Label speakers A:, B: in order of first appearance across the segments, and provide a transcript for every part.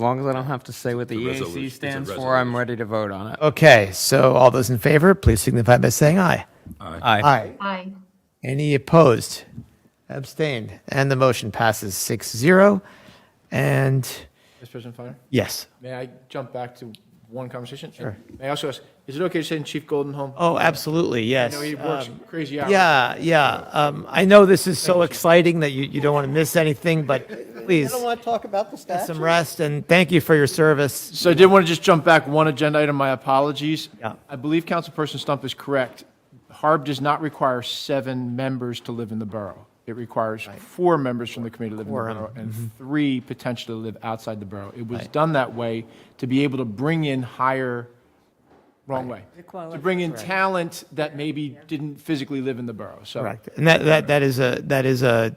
A: long as I don't have to say what the
B: It's a resolution-
A: EAC
B: it's a
A: stands for, I'm
B: resolution.
A: ready to vote on it.
C: Okay, so all those in favor, please signify by saying aye.
A: Aye.
C: Aye.
D: Aye.
C: Any opposed? Abstained. And the motion passes 6 0. And
E: Mr. President Finer,
C: yes.
E: may I jump back to one conversation? Sure. May I also ask, is it okay to send Chief Golden home?
C: Oh, absolutely.
E: I
C: Yes.
E: know he works
C: Um,
E: crazy hours.
C: yeah, yeah. Um, I know this is so exciting that you, you don't want to miss anything, but please
F: I want to talk about the
C: get
F: statute.
C: some rest and thank you for your service.
E: So I did want to just jump back one agenda item, my apologies.
C: Yeah.
E: I believe Councilperson Stump is correct. Harb does not require seven members to live in the borough. It requires four members from the committee to live in the
C: Quorum.
E: borough and three potentially live outside the borough. It was done that way to be able to bring in higher, wrong way. To bring in talent that maybe didn't physically live in the borough, so.
C: Correct. And that, that, that is a, that is a,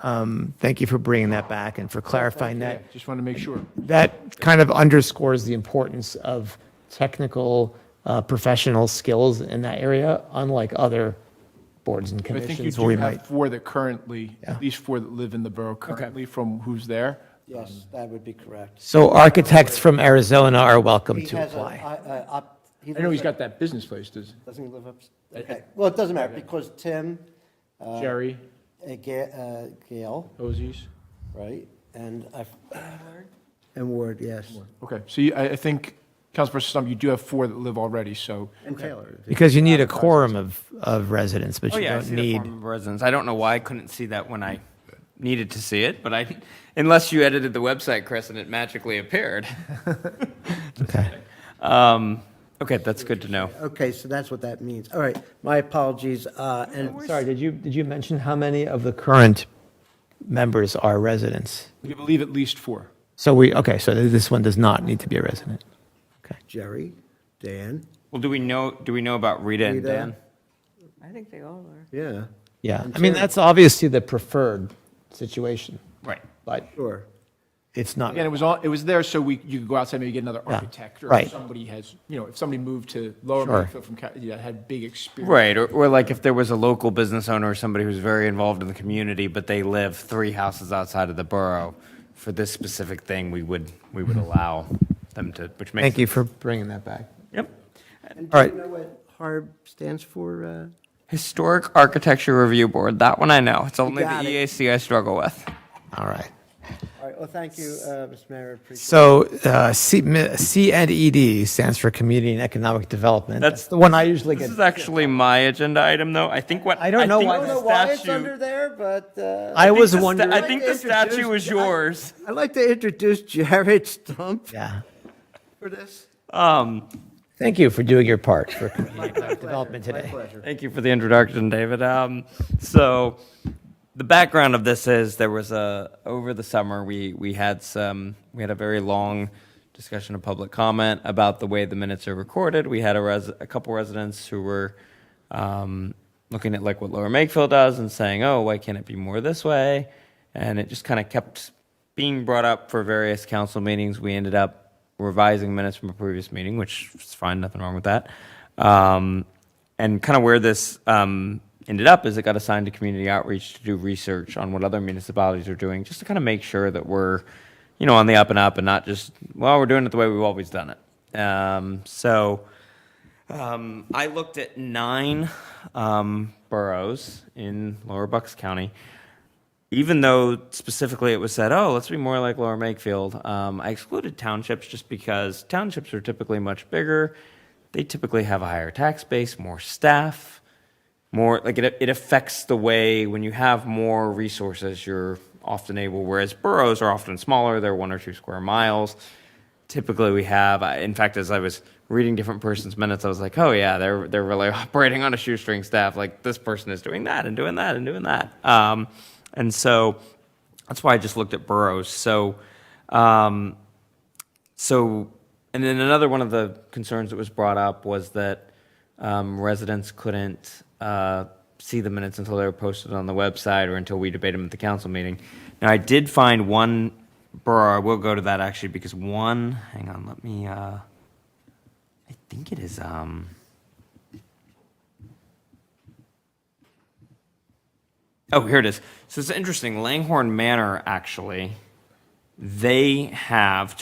C: um, thank you for bringing that back and for clarifying
E: yeah,
C: that.
E: Just want to make sure.
C: that kind of underscores the importance of technical uh, professional skills in that area, unlike other boards and
E: I think you
C: commissions where
E: do
C: we might.
E: have four that currently, at least four that live in the borough currently from who's there.
F: Yes, that would be correct.
C: So architects from Arizona are welcome
F: He
C: to
F: has a,
C: apply.
F: I, I- up- he
E: I know he's
F: lives
E: got
F: up-
E: that business place, does
F: Doesn't he live up, okay, well, it doesn't matter, because Tim,
E: Jerry,
F: uh, Ga- uh, Gail,
E: Ozies.
F: right, and I. And Ward, yes.
E: Okay, so you- I, I think, Councilperson Stump, you do have four that live already, so.
F: And Taylor.
C: Because you need a quorum of, of residents, but
A: Oh,
C: you
A: yeah, I
C: don't
A: see the
C: need.
A: form of residence. I don't know why I couldn't see that when I needed to see it, but I, unless you edited the website, Chris, and it magically appeared.
C: Okay.
A: Um, okay, that's good to know.
F: Okay, so that's what that means, all right, my apologies, uh, and,
C: Sorry, did you, did you mention how many of the current members are residents?
E: We believe at least four.
C: So we, okay, so this one does not need to be a resident. Okay.
F: Jerry, Dan,
A: Well, do we know, do we know about Rita and
F: Rita.
A: Dan?
D: I think they all are.
F: yeah,
C: Yeah. I mean, that's obviously the preferred situation,
A: Right.
C: but
F: sure.
C: it's not.
E: Again, it was on, it was there so we, you could go outside, maybe get another architect. Or
C: right.
E: if somebody has, you know, if somebody moved to Lower
C: Sure.
E: Medfield from, Ca- yeah, had big experience.
A: Right, or, or like if there was a local business owner or somebody who's very involved in the community, but they live three houses outside of the borough, for this specific thing, we would, we would allow them to, which makes.
C: Thank you for bringing that back.
A: Yep.
F: And
C: All
F: do you
C: right.
F: know what HARB stands for, uh?
A: Historic Architecture Review Board, that one I know. It's only the
F: got it.
A: EAC I struggle with.
C: All right.
F: All right, well, thank you, uh, Mr. Mayor, appreciate it.
C: So uh, C, mi- C and ED stands for Community and Economic Development.
A: That's-
C: That's the one I usually
A: This
C: get.
A: is actually my agenda item, though. I think what.
C: I don't know
A: think
C: why
A: the
F: I don't know why it's
A: statue-
F: under there, but, uh.
C: I was
A: the sta-
C: wondering.
A: I think the statue was yours.
F: I'd like to introduce Jared Stump
C: Yeah.
F: for this.
A: Um,
C: Thank you for doing your part for community and economic development today.
A: Thank you for the introduction, David. Um, so the background of this is there was a over the summer we we had some we had a very long discussion of public comment about the way the minutes are recorded. We had a res, a couple residents who were um, looking at like what Lower Makefield does and saying, "Oh, why can't it be more this way?" And it just kind of kept being brought up for various council meetings. We ended up revising minutes from a previous meeting, which is fine, nothing wrong with that. Um, and kind of where this um, ended up is it got assigned to community outreach to do research on what other municipalities are doing, just to kind of make sure that we're, you know, on the up and up and not just well, we're doing it the way we've always done it. Um, so. Um, I looked at nine um, boroughs in Lower Bucks County. Even though specifically it was said, oh, let's be more like Lower Makefield, um, I excluded townships just because townships are typically much bigger. They typically have a higher tax base, more staff, more like it, it affects the way when you have more resources, you're often able, whereas boroughs are often smaller, they're one or two square miles typically we have. I, in fact, as I was reading different persons' minutes, I was like, oh yeah, they're they're really operating on a shoestring staff. Like this person is doing that and doing that and doing that. Um, and so that's why I just looked at boroughs. So. Um, so, and then another one of the concerns that was brought up was that um, residents couldn't uh, see the minutes until they were posted on the website or until we debate them at the council meeting. Now, I did find one borough, I will go to that actually, because one, hang on, let me, uh, I think it is, um, oh, here it is. So it's interesting, Langhorne Manor, actually they have